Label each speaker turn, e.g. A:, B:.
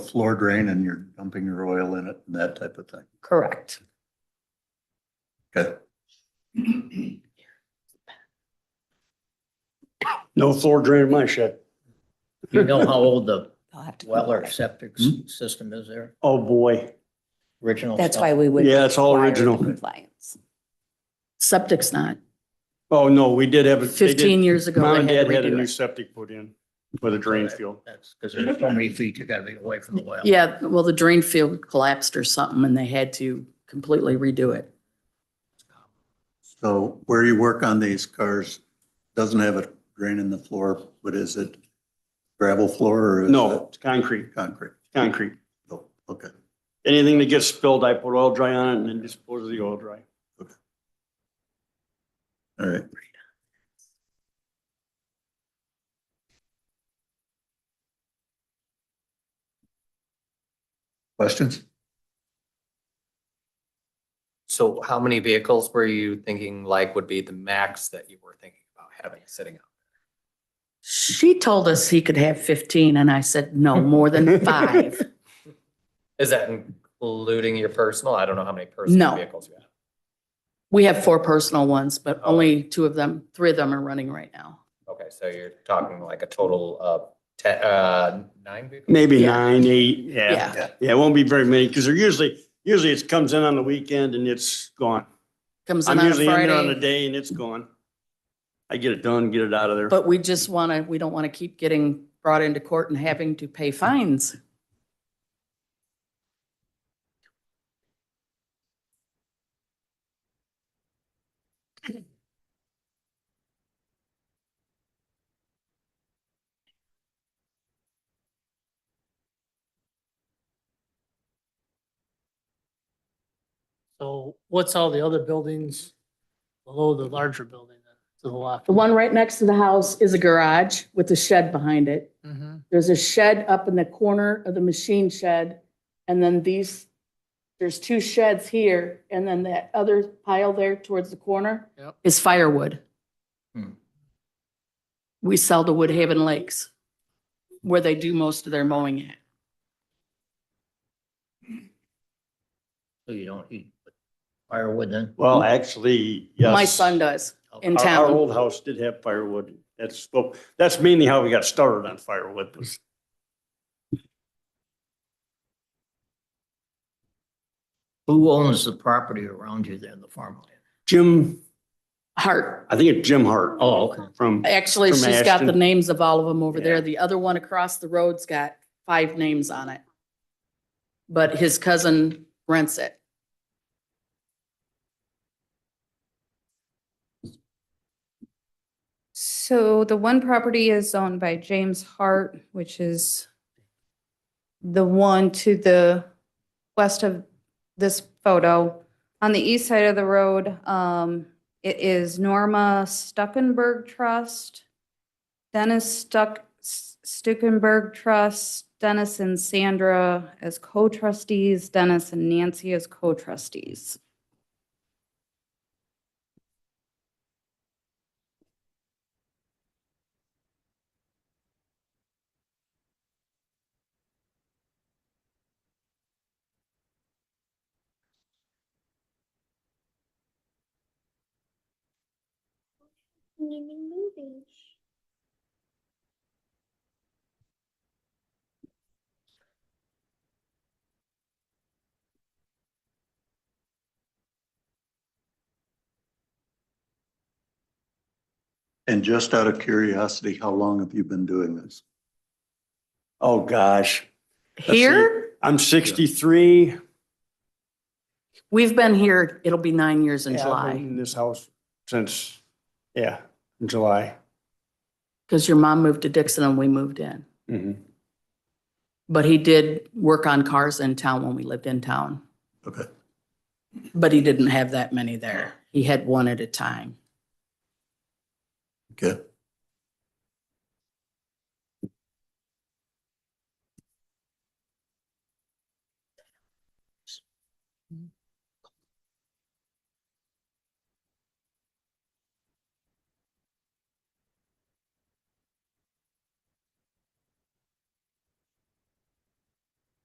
A: floor drain and you're dumping your oil in it and that type of thing.
B: Correct.
A: Okay.
C: No floor drain in my shed.
D: You know how old the
B: I'll have to.
D: well or septic s- system is there?
C: Oh, boy.
D: Original
B: That's
D: stuff.
B: why we would.
C: Yeah, it's all
B: require
C: original.
B: Compliance.
E: Septic's not.
C: Oh, no, we did have. a- they did-
E: Fifteen years ago.
C: Mom and
E: they had
C: dad
E: to
C: had a
E: redo
C: new
E: it.
C: septic put in with a drain field.
D: That's because there's so many feet you gotta be away from the well.
E: Yeah, well, the drain field collapsed or something and they had to completely redo it.
A: So where you work on these cars doesn't have a drain in the floor, but is it gravel floor or? is
C: No,
A: it
C: it's concrete,
A: Concrete.
C: concrete.
A: Oh, Okay.
C: Anything that gets spilled, I put oil dry on it and then dispose of the oil dry.
A: All right. Questions?
F: So how many vehicles were you thinking like would be the max that you were thinking about having sitting out?
E: She told us he could have fifteen and I said, no, more than five.
F: Is that including your personal? I don't know how many personal
E: No.
F: vehicles you have.
E: We have four personal ones, but
C: Oh.
E: only two of them, three of them are running right now.
F: Okay, so you're talking like a total of ten, uh, nine vehicles?
C: Maybe
E: Yeah.
C: nine, eight, yeah.
E: Yeah.
C: Yeah, it won't be very many because they're usually, usually it comes in on the weekend and it's gone.
E: Comes in
C: I'm
E: on a
C: usually in there on a
E: Friday,
C: day and it's gone. I get it done, get it out of there.
E: but we just want to, we don't want to keep getting brought into court and having to pay fines.
G: So what's all the other buildings below the larger building then, to the left?
E: The one right next to the house is a garage with a shed behind it.
B: Mm-hmm.
G: Mhm.
E: There's a shed up in the corner of the machine shed, and then these, there's two sheds here, and then that other pile there towards the corner
G: Yep.
E: is firewood.
F: Hmm.
E: We sell to Woodhaven Lakes, where they do most of their mowing at.
D: So you don't heat firewood then?
C: Well, actually, yes.
E: My son does in
C: Our- Our
E: town.
C: old house did have firewood. That's, well, that's mainly how we got started on firewood was
D: Who owns the property around you there in the farmland?
C: Jim,
E: Hart,
C: I think it's Jim Hart.
D: Oh, okay.
C: From,
E: actually,
C: From
E: she's got the
C: Ashton.
E: names of all of them over
C: Yeah.
E: there. The other one across the road's got five names on it. But his cousin rents it.
H: So the one property is owned by James Hart, which is the one to the west of this photo. On the east side of the road, um, it is Norma Stuckenberg Trust, Dennis Stuck, Stuckenberg Trust, Dennis and Sandra as co-trustees, Dennis and Nancy as co-trustees.
A: And just out of curiosity, how long have you been doing this?
C: oh gosh, see.
E: Here?
C: I'm 63.
E: We've been here, it'll be nine years in
C: Yeah, I've been
E: July,
C: In this house since, yeah, in July.
E: because your mom moved to Dixon and we moved in.
C: Mhm.
E: But he did work on cars in town when we lived in town,
A: Okay.
E: but he didn't have that many there. He had one at a time.
A: Okay.